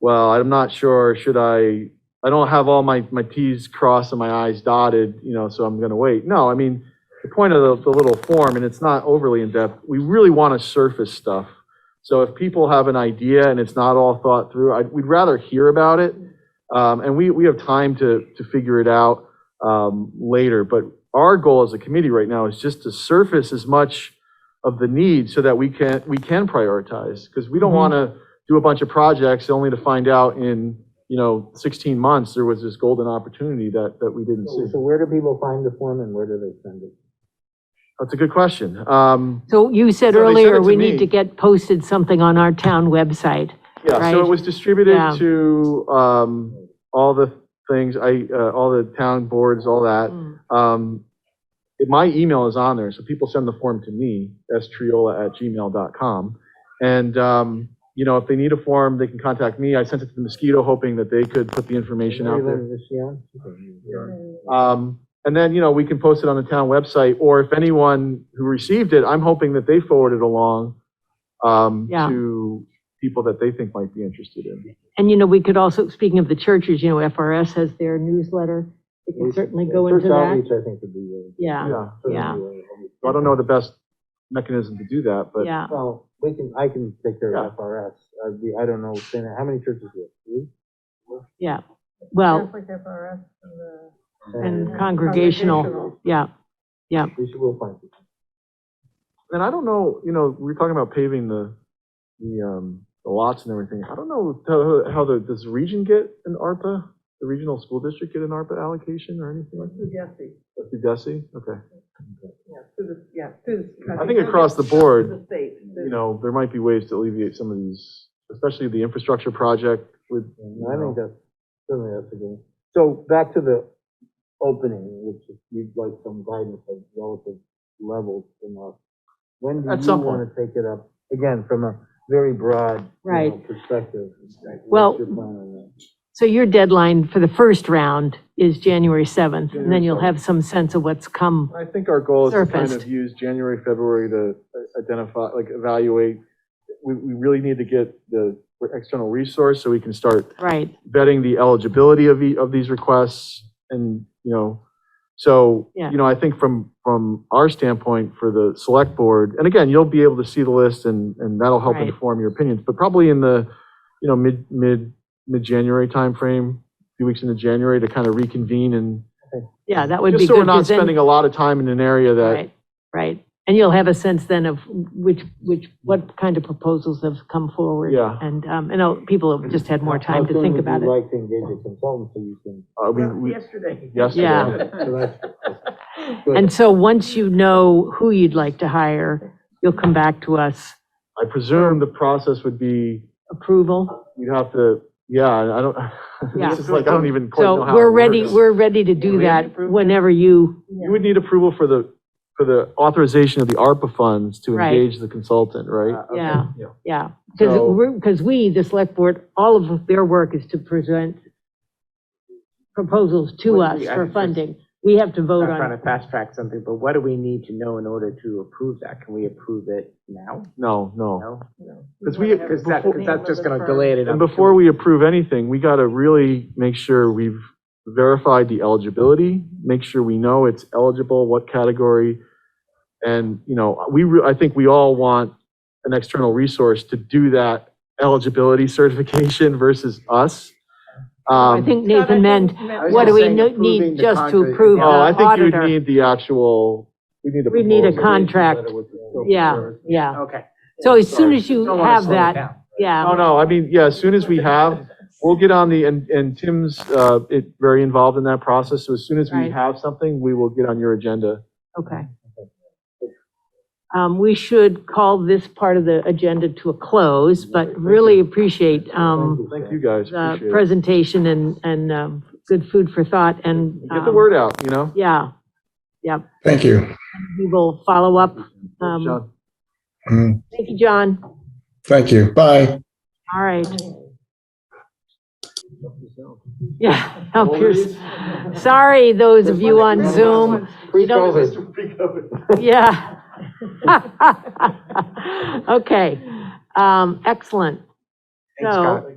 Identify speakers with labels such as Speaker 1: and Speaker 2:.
Speaker 1: well, I'm not sure, should I, I don't have all my, my Ts crossed and my Is dotted, you know, so I'm going to wait. No, I mean, the point of the, the little form, and it's not overly in-depth, we really want to surface stuff. So if people have an idea and it's not all thought through, I, we'd rather hear about it. Um, and we, we have time to, to figure it out, um, later. But our goal as a committee right now is just to surface as much of the need so that we can, we can prioritize. Because we don't
Speaker 2: Mhm.
Speaker 1: want to do a bunch of projects only to find out in, you know, 16 months, there was this golden opportunity that, that we didn't
Speaker 2: So
Speaker 1: see.
Speaker 2: so where do people find the form and where do they send it?
Speaker 1: That's a good question. Um,
Speaker 3: So you
Speaker 1: So they
Speaker 3: said
Speaker 1: sent it
Speaker 3: earlier,
Speaker 1: to
Speaker 3: we
Speaker 1: me.
Speaker 3: need to get posted something on our town website.
Speaker 1: Yeah, so it
Speaker 3: Right.
Speaker 1: was distributed
Speaker 3: Yeah.
Speaker 1: to um, all the things, I, uh, all the town boards, all that. Um, it- My email is on there, so people send the form to me, striola@gmail.com. And, um, you know, if they need a form, they can contact me. I sent it to the Mosquito, hoping that they could put the information out there.
Speaker 2: Anybody this year?
Speaker 1: Um, And then, you know, we can post it on the town website, or if anyone who received it, I'm hoping that they forward it along um,
Speaker 3: Yeah.
Speaker 1: to people that they think might be interested in.
Speaker 3: And, you know, we could also, speaking of the churches, you know, FRS has their newsletter. We can certainly go into
Speaker 2: First
Speaker 3: that.
Speaker 2: outreach, I think, would be really.
Speaker 3: Yeah,
Speaker 1: Yeah.
Speaker 3: Yeah.
Speaker 1: So I don't know the best mechanism to do that, but
Speaker 3: yeah.
Speaker 2: Well, we can, I can take care
Speaker 1: Yeah.
Speaker 2: of FRS. I'd be- I don't know, Dana, how many churches do you
Speaker 3: Well,
Speaker 4: Conflict FRS and the-
Speaker 2: have?
Speaker 3: and congregational, yeah.
Speaker 2: We should, we'll find it.
Speaker 1: and I don't know, you know, we were talking about paving the, the, um, the lots and everything. I don't know how, how the, does the region get an ARPA? The regional school district get an ARPA allocation or anything like
Speaker 4: through DESI,
Speaker 1: that? Through DESI? Okay.
Speaker 4: yeah, through the, yeah, through the.
Speaker 1: I think across the board,
Speaker 4: The state.
Speaker 1: you know, there might be ways to alleviate some of these, especially the infrastructure project with,
Speaker 2: And I think that's, certainly that's a good. one. So back to the opening, which is- you'd like some guidance of relative levels from us. When do
Speaker 1: At
Speaker 2: you
Speaker 1: some
Speaker 2: want to take it up? Again, from a very broad, you know,
Speaker 3: Right.
Speaker 2: perspective. What's
Speaker 3: Well-
Speaker 2: your plan on that?
Speaker 3: So your deadline for the first round is January 7th, and then
Speaker 1: January
Speaker 3: you'll
Speaker 1: 7th.
Speaker 3: have some sense of what's come.
Speaker 1: I think our goal is to kind of
Speaker 3: Surfaced.
Speaker 1: use January, February to uh, identify, like evaluate. We, we really need to get the external resource so we can start
Speaker 3: Right,
Speaker 1: vetting the eligibility of, the- of these requests and, you know, so,
Speaker 3: Yeah.
Speaker 1: you know, I think from, from our standpoint for the select board, and again, you'll be able to see the list and, and that'll help
Speaker 3: Right.
Speaker 1: inform your opinions, but probably in the, you know, mid, mid, mid-January timeframe, a few weeks into January to kind of reconvene and
Speaker 3: yeah, that would be good.
Speaker 1: just so we're not
Speaker 3: 'cause then-
Speaker 1: spending a lot of time in an area that,
Speaker 3: Right, right. And you'll have a sense then of which, which, what kind of proposals have come forward.
Speaker 1: Yeah.
Speaker 3: And, um, and uh, people have just had more
Speaker 2: How
Speaker 3: time to
Speaker 2: soon
Speaker 3: think
Speaker 2: would
Speaker 3: about
Speaker 2: you
Speaker 3: it.
Speaker 2: like to engage a consultant so you can?
Speaker 1: uh, we,
Speaker 4: Well,
Speaker 1: we,
Speaker 4: Yesterday.
Speaker 1: yesterday.
Speaker 3: Yeah.
Speaker 2: So that's- good.
Speaker 3: And so once you know who you'd like to hire, you'll come back to us.
Speaker 1: I presume the process would be,
Speaker 3: Approval?
Speaker 1: you'd have to, yeah, I don't,
Speaker 3: Yeah.
Speaker 1: it's just like, I don't even quite know
Speaker 3: So
Speaker 1: how.
Speaker 3: we're
Speaker 1: it
Speaker 3: ready,
Speaker 1: works.
Speaker 3: we're ready to
Speaker 4: Yeah,
Speaker 3: do
Speaker 4: we have to
Speaker 3: that
Speaker 4: approve it.
Speaker 3: whenever you,
Speaker 4: Yeah.
Speaker 1: You would need approval for the, for the authorization of the ARPA funds to
Speaker 3: Right. Uh,
Speaker 1: engage the consultant, right?
Speaker 2: Okay.
Speaker 3: yeah,
Speaker 1: Yeah.
Speaker 3: yeah.
Speaker 1: So-
Speaker 3: Because, because we, the select board, all of their work is to present proposals to
Speaker 5: What do
Speaker 3: us
Speaker 5: we- I
Speaker 3: for
Speaker 5: just-
Speaker 3: funding. We have to vote
Speaker 5: not
Speaker 3: on it.
Speaker 5: trying to fast track something, but what do we need to know in order to approve that? Can we approve it now?
Speaker 1: No, no.
Speaker 5: No?
Speaker 1: Because we,
Speaker 5: Because that, 'cause that's just gonna
Speaker 4: delay.
Speaker 5: delay it.
Speaker 1: and before we approve anything, we got to really make sure we've verified the eligibility, make sure we know it's eligible, what category. And, you know, we, re- I think we all want an external resource to do that eligibility certification versus us.
Speaker 3: I
Speaker 1: Um,
Speaker 3: think Nathan meant,
Speaker 5: was
Speaker 3: what do
Speaker 5: just
Speaker 3: we
Speaker 5: saying
Speaker 3: no-
Speaker 5: approving
Speaker 3: need
Speaker 5: the
Speaker 3: just to
Speaker 5: concrete-
Speaker 3: approve the
Speaker 1: Oh, I think you would
Speaker 3: auditor?
Speaker 1: need the actual, we need a.
Speaker 3: We need a
Speaker 1: proposal.
Speaker 3: contract.
Speaker 2: Letter with the scope of
Speaker 3: Yeah,
Speaker 2: service.
Speaker 3: yeah.
Speaker 5: Okay.
Speaker 3: So as soon as you
Speaker 5: Don't wanna
Speaker 3: have
Speaker 5: slow it
Speaker 3: that,
Speaker 5: down.
Speaker 1: No,
Speaker 3: yeah,
Speaker 1: no, I mean, yeah, as soon as we have, we'll get on the, and, and Tim's, uh, it, very involved in that process. So as soon as we
Speaker 3: Right.
Speaker 1: have something, we will get on your agenda.
Speaker 3: okay. Um, we should call this part of the agenda to a close, but really appreciate, um,
Speaker 1: Thank you guys,
Speaker 3: the
Speaker 1: appreciate it.
Speaker 3: presentation and, and, um, good food for thought and.
Speaker 1: Get the
Speaker 3: um,
Speaker 1: word out, you know?
Speaker 3: Yeah,
Speaker 6: Thank you.
Speaker 3: we will follow up. Um,
Speaker 1: John.
Speaker 6: Mm,
Speaker 3: Thank you, John.
Speaker 6: Thank you. Bye.
Speaker 3: All right, yeah, help yours. Sorry, those of you on Zoom.
Speaker 2: Pre-COVID.
Speaker 3: Yeah. Okay, um, excellent.
Speaker 5: Thanks,
Speaker 3: So,
Speaker 5: Scott.